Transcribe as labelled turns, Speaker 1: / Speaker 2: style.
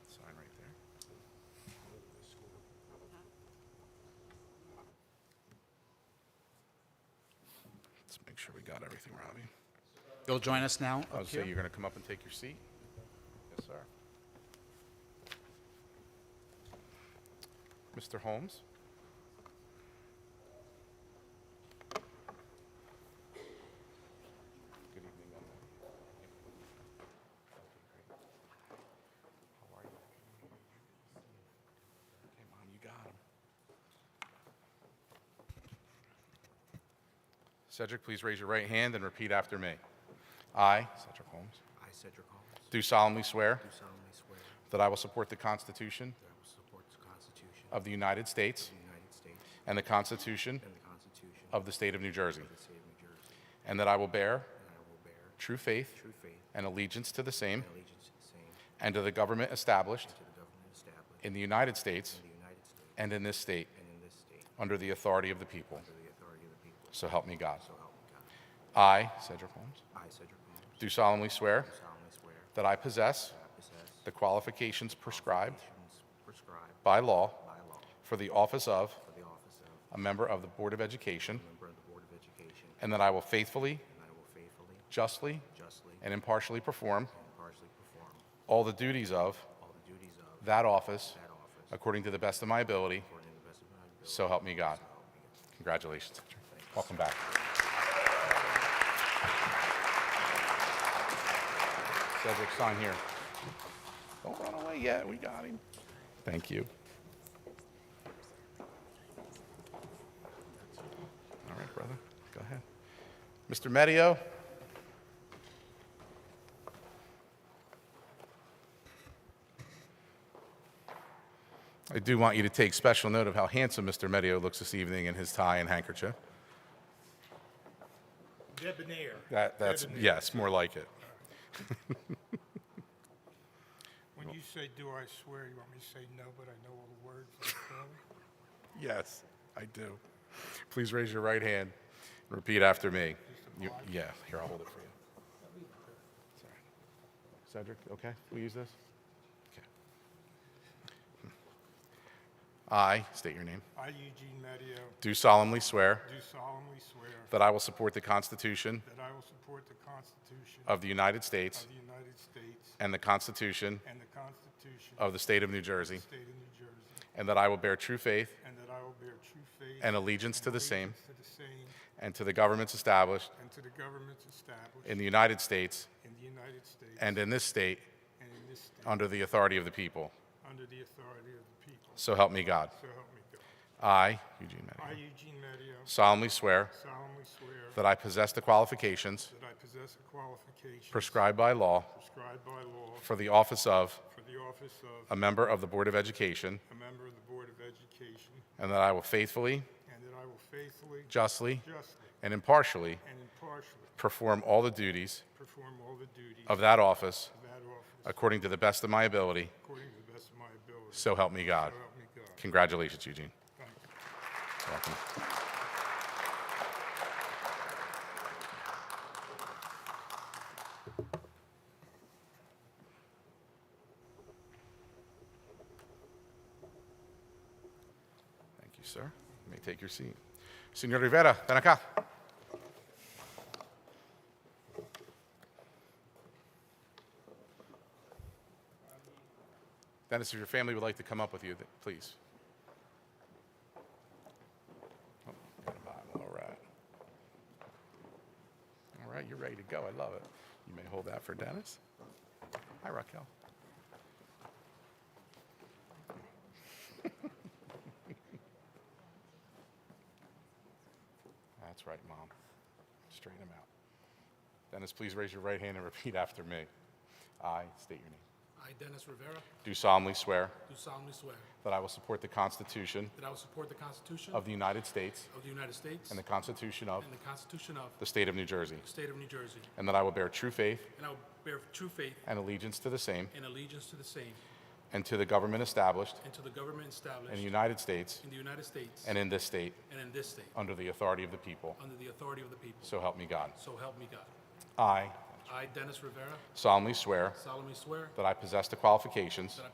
Speaker 1: sure we got everything, Robbie.
Speaker 2: You'll join us now
Speaker 1: Oh,
Speaker 2: up
Speaker 1: so
Speaker 2: here?
Speaker 1: you're going to come up and take your seat? Yes, sir. Mr. Holmes? Good evening. Emma. How are you? Okay, Mom, you got him. Cedric, please raise your right hand and repeat after me. I, Cedric Holmes,
Speaker 3: I, Cedric Holmes,
Speaker 1: do solemnly swear
Speaker 3: do solemnly swear
Speaker 1: that I will support the Constitution
Speaker 3: that I will support the Constitution of
Speaker 1: of the United States
Speaker 3: the United States
Speaker 1: and the Constitution
Speaker 3: and the Constitution of
Speaker 1: of the State of New Jersey,
Speaker 3: the State of New Jersey,
Speaker 1: and that I will bear
Speaker 3: and I will bear
Speaker 1: true faith
Speaker 3: true faith
Speaker 1: and allegiance to the same
Speaker 3: and allegiance to the same and
Speaker 1: and to the government established
Speaker 3: to the government established
Speaker 1: in the United States
Speaker 3: in the United States
Speaker 1: and in this state
Speaker 3: and in this state
Speaker 1: under the authority of the people.
Speaker 3: under the authority of the people,
Speaker 1: So help me God.
Speaker 3: so help me God.
Speaker 1: I, Cedric Holmes,
Speaker 3: I, Cedric Holmes,
Speaker 1: do solemnly swear
Speaker 3: do solemnly swear
Speaker 1: that I possess
Speaker 3: that I possess
Speaker 1: the qualifications prescribed
Speaker 3: qualifications prescribed
Speaker 1: by law
Speaker 3: by law
Speaker 1: for the office of
Speaker 3: for the office
Speaker 1: a
Speaker 3: of
Speaker 1: member of the Board of Education,
Speaker 3: member of the Board of Education,
Speaker 1: and that I will faithfully,
Speaker 3: and I will faithfully,
Speaker 1: justly,
Speaker 3: justly,
Speaker 1: and impartially perform
Speaker 3: and impartially perform
Speaker 1: all the duties of
Speaker 3: all the duties of
Speaker 1: that office
Speaker 3: That office.
Speaker 1: according to the best of my ability.
Speaker 3: According to the best of my ability.
Speaker 1: So help me God.
Speaker 3: So help me God.
Speaker 1: Congratulations. Welcome back. Cedric, sign here. Don't run away yet. We got him. Thank you. All right, brother. Go ahead. Mr. Medio. I do want you to take special note of how handsome Mr. Medio looks this evening in his tie and handkerchief.
Speaker 4: Debonair.
Speaker 1: That, that's,
Speaker 4: Debonair.
Speaker 1: yes, more like it.
Speaker 4: When you say, "Do I swear?" you want me to say no, but I know all the words. like, well,
Speaker 1: Yes, I do. Please raise your right hand. Repeat after me. You- Yeah, here, I'll hold it for you. It's all right. Cedric, okay, we use this? Okay. I, state your name,
Speaker 4: I, Eugene Medio,
Speaker 1: do solemnly swear
Speaker 4: do solemnly swear
Speaker 1: that I will support the Constitution
Speaker 4: that I will support the Constitution of
Speaker 1: of the United States
Speaker 4: the United States
Speaker 1: and the Constitution
Speaker 4: and the Constitution of
Speaker 1: of the State of New
Speaker 4: the
Speaker 1: Jersey,
Speaker 4: State of New Jersey,
Speaker 1: and that I will bear true faith
Speaker 4: and that I will bear true faith
Speaker 1: and allegiance to the same
Speaker 4: allegiance to the same
Speaker 1: and to the governments established
Speaker 4: and to the governments established
Speaker 1: in the United States
Speaker 4: in the United States
Speaker 1: and in this state
Speaker 4: and in this state
Speaker 1: under the authority of the people.
Speaker 4: under the authority of the people.
Speaker 1: So help me God.
Speaker 4: So help me God.
Speaker 1: I, Eugene
Speaker 4: I,
Speaker 1: Medio,
Speaker 4: Eugene Medio,
Speaker 1: solemnly swear
Speaker 4: solemnly swear
Speaker 1: that I possess the qualifications
Speaker 4: That I possess the qualifications
Speaker 1: prescribed by law
Speaker 4: prescribed by law
Speaker 1: for the office of
Speaker 4: for the office
Speaker 1: a
Speaker 4: of
Speaker 1: member of the Board of Education,
Speaker 4: a member of the Board of Education,
Speaker 1: and that I will faithfully,
Speaker 4: and that I will faithfully,
Speaker 1: justly,
Speaker 4: justly,
Speaker 1: and impartially
Speaker 4: and impartially
Speaker 1: perform all the duties
Speaker 4: perform all the duties
Speaker 1: of that office
Speaker 4: of that office
Speaker 1: according to the best of my ability.
Speaker 4: according to the best of my ability. So
Speaker 1: So help me God.
Speaker 4: help me God.
Speaker 1: Congratulations, Eugene.
Speaker 4: Thank you.
Speaker 1: Welcome. Thank you, sir. You may take your seat. Senor Rivera, ven acá. Dennis, if your family would like to come up with you, th- please. Got a Bible, all right. All right, you're ready to go. I love it. You may hold that for Dennis. Hi, Raquel. That's right, Mom. Straighten him out. Dennis, please raise your right hand and repeat after me. I state your name.
Speaker 5: I, Dennis Rivera,
Speaker 1: Do solemnly swear
Speaker 5: do solemnly swear
Speaker 1: that I will support the Constitution
Speaker 5: that I will support the Constitution
Speaker 1: of the United States
Speaker 5: of the United States
Speaker 1: and the Constitution of
Speaker 5: and the Constitution of
Speaker 1: the State of New Jersey.
Speaker 5: the State of New Jersey,
Speaker 1: And that I will bear true faith
Speaker 5: and I will bear true faith
Speaker 1: and allegiance to the same
Speaker 5: and allegiance to the same
Speaker 1: and to the government established
Speaker 5: and to the government
Speaker 1: in the
Speaker 5: established
Speaker 1: United States
Speaker 5: in the United States
Speaker 1: and in this state
Speaker 5: and in this state,
Speaker 1: under the authority of the people.
Speaker 5: under the authority of the people.
Speaker 1: So help me God.
Speaker 5: So help me God.
Speaker 1: I
Speaker 5: I, Dennis Rivera,
Speaker 1: solemnly swear
Speaker 5: solemnly swear
Speaker 1: that I possess the qualifications